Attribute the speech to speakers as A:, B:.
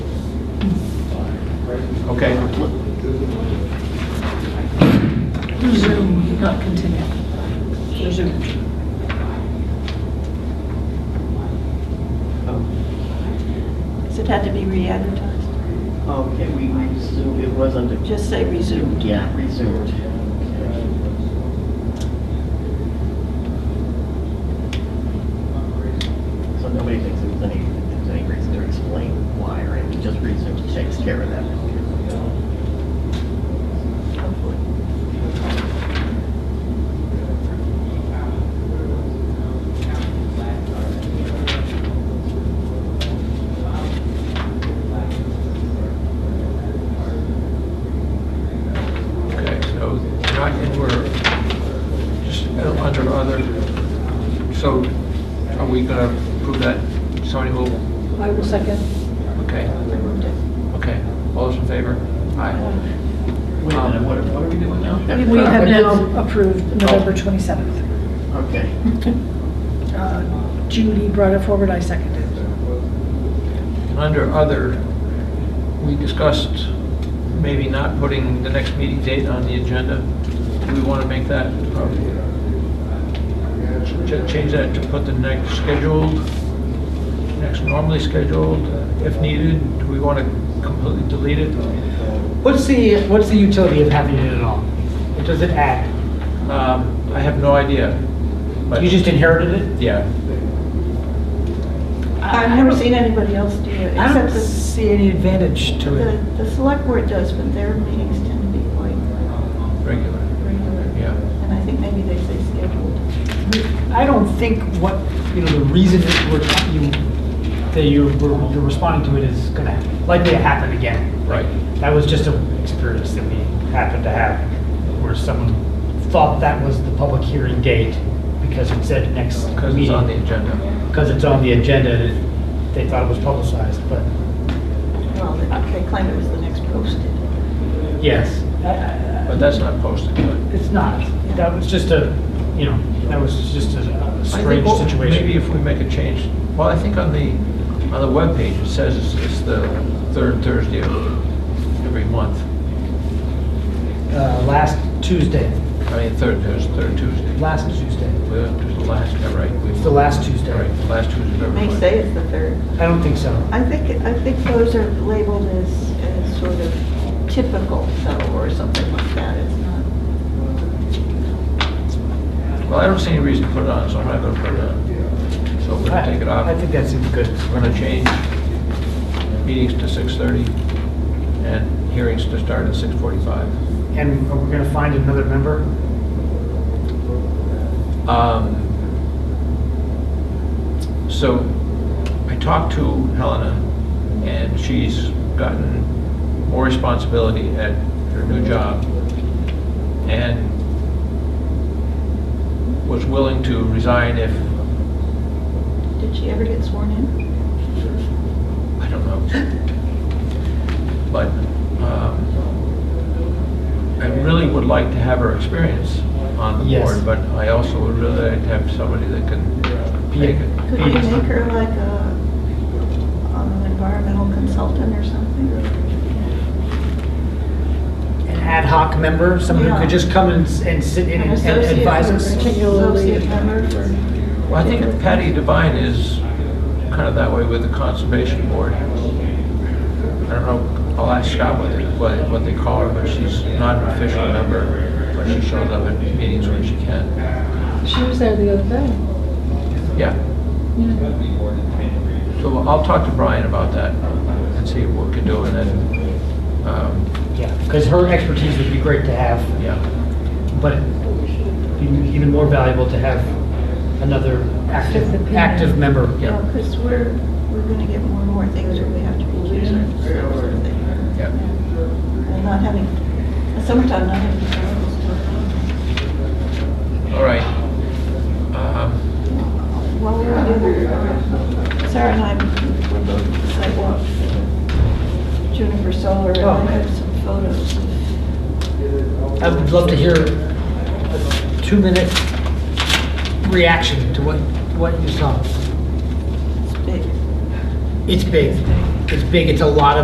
A: Okay,
B: Oh,
C: Resume, not continue. Resume.
B: Oh,
D: Does it have to be re-advertised?
B: Okay, we resumed, it was under,
D: Just say resumed.
B: yeah, resumed. So nobody thinks there's any, there's any reason to explain why, or anything. just resumed takes care of that. Hopefully.
A: okay, so not, we're just uh, under other, so are we gonna approve that? Somebody will,
C: I will second.
A: okay, okay, all those in favor? Aye.
B: Wait a minute, what are, what are we doing now?
C: We have Oh. now approved November 27th.
B: Okay.
C: Uh, Judy brought it forward, I seconded.
A: And under other, we discussed maybe not putting the next meeting date on the agenda. Do we wanna make that, uh, ch- change that to put the next scheduled, next normally scheduled, uh, if needed? Do we wanna completely delete it?
E: What's the, what's the utility of having it at all? What does it add?
A: Um, I have no idea. but-
E: You just inherited it?
A: Yeah,
D: I've never seen anybody else do it,
E: I
D: except
E: don't
D: the,
E: see any advantage to
D: the,
E: it.
D: the select board does, but their meetings tend to be quite
A: regular,
D: regular.
A: yeah.
D: And I think maybe they say scheduled.
E: I don't think what, you know, the reason that we're, you, that you're, we're- you're responding to it is gonna likely to happen again.
A: Right.
E: That was just an experience that we happened to have, where someone thought that was the public hearing date because it said next meeting.
A: Because it's on the agenda.
E: Because it's on the agenda, and they thought it was publicized, but
D: Well, they they claim it was the next posted.
E: yes.
A: But that's not posted, but.
E: It's not. That was just a, you know, that was just a a
A: I think
E: strange
A: what-
E: situation.
A: Maybe if we make a change, well, I think on the, on the webpage, it says it's- it's the third Thursday of every month.
E: Uh, Last Tuesday,
A: I mean, third, there's third Tuesday.
E: last Tuesday.
A: Uh, There's the last, yeah, right. we-
E: It's the last Tuesday.
A: Right, the last Tuesday of every
D: May
A: month.
D: say it's the third.
E: I don't think so.
D: I think, I think those are labeled as, as sort of typical, so, or something like that. It's not.
A: Well, I don't see any reason to put it on, so I'm not gonna put it on. So we're gonna take it off.
E: I think that seems good.
A: We're gonna change meetings to 6:30 and hearings to start at 6:45.
E: And are we going to find another member?
A: Um, So I talked to Helena, and she's gotten more responsibility at her new job and was willing to resign if,
D: Did she ever get sworn in?
A: I don't know. But um, I really would like to have her experience on the
E: Yes.
A: board, but I also would really like to have somebody that can take it.
D: Could you make her like a, um, environmental consultant or something?
E: An ad hoc member, someone who
D: Yeah.
E: could just come and s- and sit in
D: An
E: and
D: associate
E: and advise
D: member,
E: us?
C: Particularly-
D: Associate member for,
A: Well, I think Patty Devine is kind of that way with the Conservation Board. I don't know, I'll ask Scott what, they- what, what they call her, but she's not an official member, but she shows up at meetings when she can.
C: She was there the other day.
A: Yeah. So I'll talk to Brian about that and see what we can do and then, um,
E: Yeah, because her expertise would be great to have,
A: yeah,
E: but it'd be even more valuable to have another
C: Just
E: active,
C: opinion.
E: active member.
A: Yeah.
D: because we're, we're gonna get more and more things where we have to recuse ourselves. I think.
A: yeah.
D: And not having, summertime not having to.
A: All right. Um,
D: While we're on the other, Sarah and I, we're both at the sidewalk, Juniper Solar, and
E: Oh.
D: I have some photos of
E: I would love to hear a two-minute reaction to what, what you saw.
D: this big
E: It's big. It's big. It's a lot of.